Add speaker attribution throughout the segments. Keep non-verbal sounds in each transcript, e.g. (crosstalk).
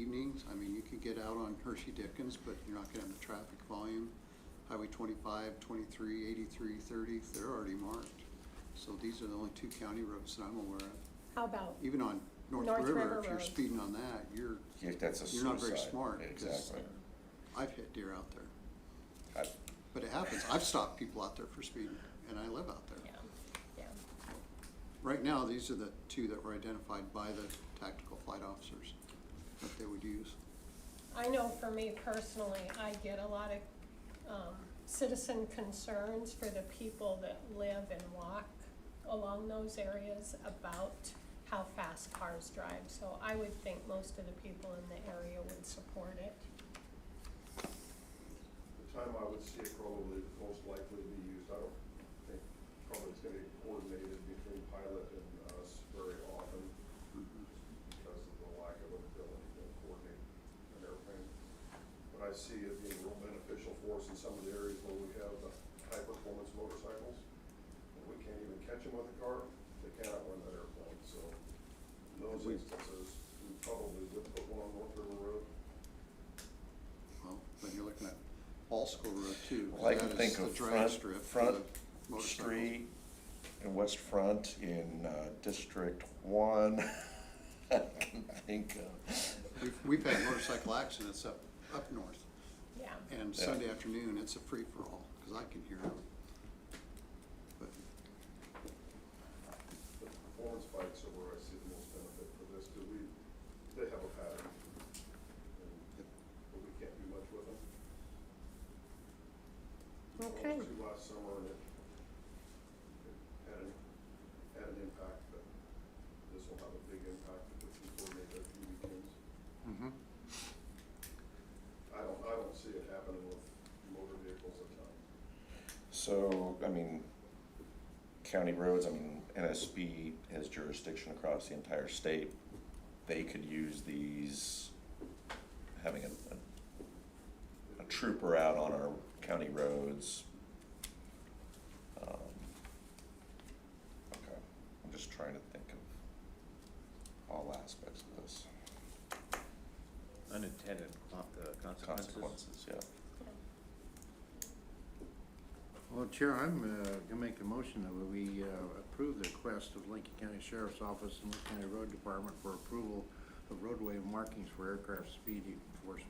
Speaker 1: things. I mean, you could get out on Hershey Dickens, but you're not gonna have the traffic volume. Highway 25, 23, 83, 30, they're already marked. So these are the only two county roads that I'm aware of.
Speaker 2: How about,
Speaker 1: Even on North
Speaker 2: North
Speaker 1: River,
Speaker 2: River
Speaker 1: if you're
Speaker 2: Road.
Speaker 1: speeding on that, you're,
Speaker 3: If that's a
Speaker 1: You're not very
Speaker 3: suicide.
Speaker 1: smart, 'cause-
Speaker 3: Exactly.
Speaker 1: I've hit deer out there.
Speaker 3: I-
Speaker 1: But it happens. I've stopped people out there for speeding, and I live out there.
Speaker 2: yeah, yeah,
Speaker 1: Right now, these are the two that were identified by the tactical flight officers that they would use.
Speaker 2: I know for me personally, I get a lot of, um, citizen concerns for the people that live and walk along those areas about how fast cars drive, so I would think most of the people in the area would support it.
Speaker 4: The time I would see it probably most likely to be used, I don't think, probably it's gonna be coordinated between pilot and us very often,
Speaker 1: Mm-hmm.
Speaker 4: just because of the lack of ability to coordinate an airplane. But I see it being real beneficial for us in some of the areas where we have the high-performance motorcycles, and we can't even catch them with a car, they can't outrun that airplane, so in those
Speaker 1: We-
Speaker 4: instances, we probably would put one on North River Road.
Speaker 1: Well, when you're looking at all school road too.
Speaker 3: Well, I can
Speaker 1: that is
Speaker 3: think
Speaker 1: the
Speaker 3: of
Speaker 1: drag
Speaker 3: front,
Speaker 1: strip for
Speaker 3: front
Speaker 1: the motorcycles.
Speaker 3: street and west front in uh, District One. (laughs) I can think of.
Speaker 1: We've, we've had motorcycle accidents up, up north,
Speaker 2: Yeah,
Speaker 1: and
Speaker 3: Yeah.
Speaker 1: Sunday afternoon, it's a free-for-all, because I can hear them. But
Speaker 4: The performance bikes are where I see the most benefit for this, because we, they have a pattern, and, but we can't do much with them. We saw
Speaker 2: Okay.
Speaker 4: Two last summer, and it, it had an, had an impact, but this will have a big impact if we can coordinate a few weekends.
Speaker 5: Mm-hmm.
Speaker 4: I don't, I don't see it happening with motor vehicles at times.
Speaker 3: So, I mean, county roads, I mean, NSB has jurisdiction across the entire state. They could use these, having a, a- a trooper out on our county roads. Um, Okay, I'm just trying to think of all aspects of this,
Speaker 6: Unintended con- uh, consequences.
Speaker 3: consequences, yeah.
Speaker 5: Well, Chair, I'm uh, gonna make a motion that we uh, approve the request of Lincoln County Sheriff's Office and Lincoln County Road Department for approval of roadway markings for aircraft speed enforcement.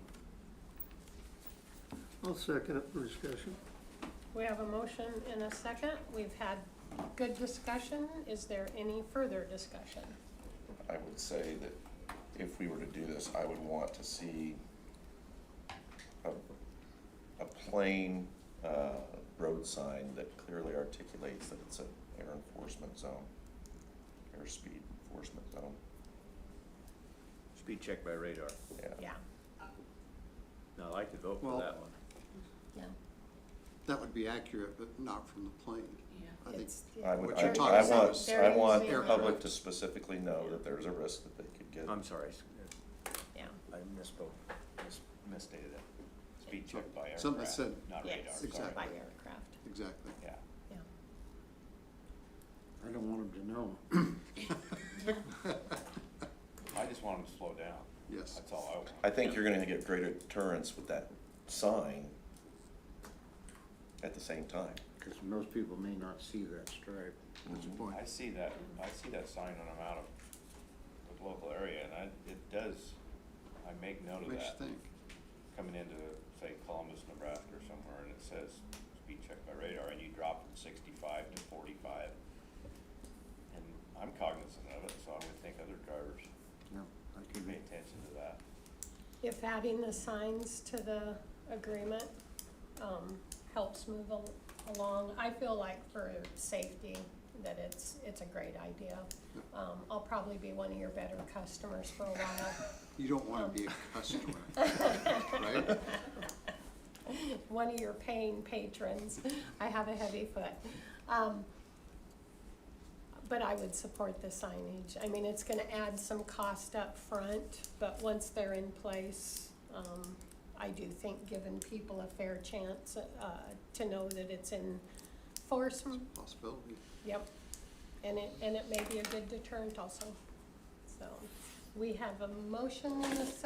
Speaker 7: I'll second it for discussion.
Speaker 2: we have a motion and a second, we've had good discussion, is there any further discussion?
Speaker 3: I would say that if we were to do this, I would want to see a, a plain, uh, road sign that clearly articulates that it's an air enforcement zone, airspeed enforcement zone,
Speaker 6: Speed check by radar.
Speaker 3: yeah.
Speaker 2: Yeah,
Speaker 6: No, I could vote
Speaker 1: Well-
Speaker 6: for that one.
Speaker 2: yeah.
Speaker 1: that would be accurate, but not from the plane. I think
Speaker 2: It's-
Speaker 3: I would,
Speaker 1: What
Speaker 3: I,
Speaker 1: you're talking
Speaker 3: I
Speaker 1: about
Speaker 3: want,
Speaker 1: is
Speaker 3: I
Speaker 2: they're
Speaker 3: want
Speaker 2: using
Speaker 3: the
Speaker 1: it.
Speaker 3: public to specifically know that there's a risk that they could get.
Speaker 6: I'm sorry, s-
Speaker 2: Yeah,
Speaker 6: I misspoke, mis- misstated it. Speed check by
Speaker 1: Something that
Speaker 6: aircraft,
Speaker 1: said-
Speaker 6: not
Speaker 2: Yes.
Speaker 6: radar,
Speaker 1: Exactly.
Speaker 6: sorry.
Speaker 2: by aircraft,
Speaker 1: Exactly.
Speaker 6: Yeah.
Speaker 2: yeah.
Speaker 5: I don't want them to know.
Speaker 8: I just want them to slow down.
Speaker 1: Yes.
Speaker 8: That's all I want.
Speaker 3: I think you're gonna get greater deterrence with that sign at the same time.
Speaker 5: Because most people may not see that stripe. That's the
Speaker 3: Mhm.
Speaker 5: point.
Speaker 8: I see that, I see that sign when I'm out of the local area, and I, it does, I make note of
Speaker 1: Makes
Speaker 8: that.
Speaker 1: you think.
Speaker 8: Coming into, say, Columbus, Nebraska or somewhere, and it says speed check by radar, and you drop from sixty-five to forty-five. And I'm cognizant of it, so I would think other drivers
Speaker 5: Yeah, I
Speaker 8: should
Speaker 5: can
Speaker 8: pay attention to that.
Speaker 2: If adding the signs to the agreement, um, helps move al- along, I feel like for safety, that it's, it's a great idea. Um, I'll probably be one of your better customers for a while,
Speaker 1: You don't want to be a
Speaker 8: (laughs)
Speaker 1: customer, right?
Speaker 2: (laughs) one of your paying patrons, I have a heavy foot. Um, but I would support the signage, I mean, it's gonna add some cost up front, but once they're in place, um, I do think giving people a fair chance, uh, to know that it's in force,
Speaker 1: Possibility.
Speaker 2: yep. And it, and it may be a good deterrent also, so, we have a motion in a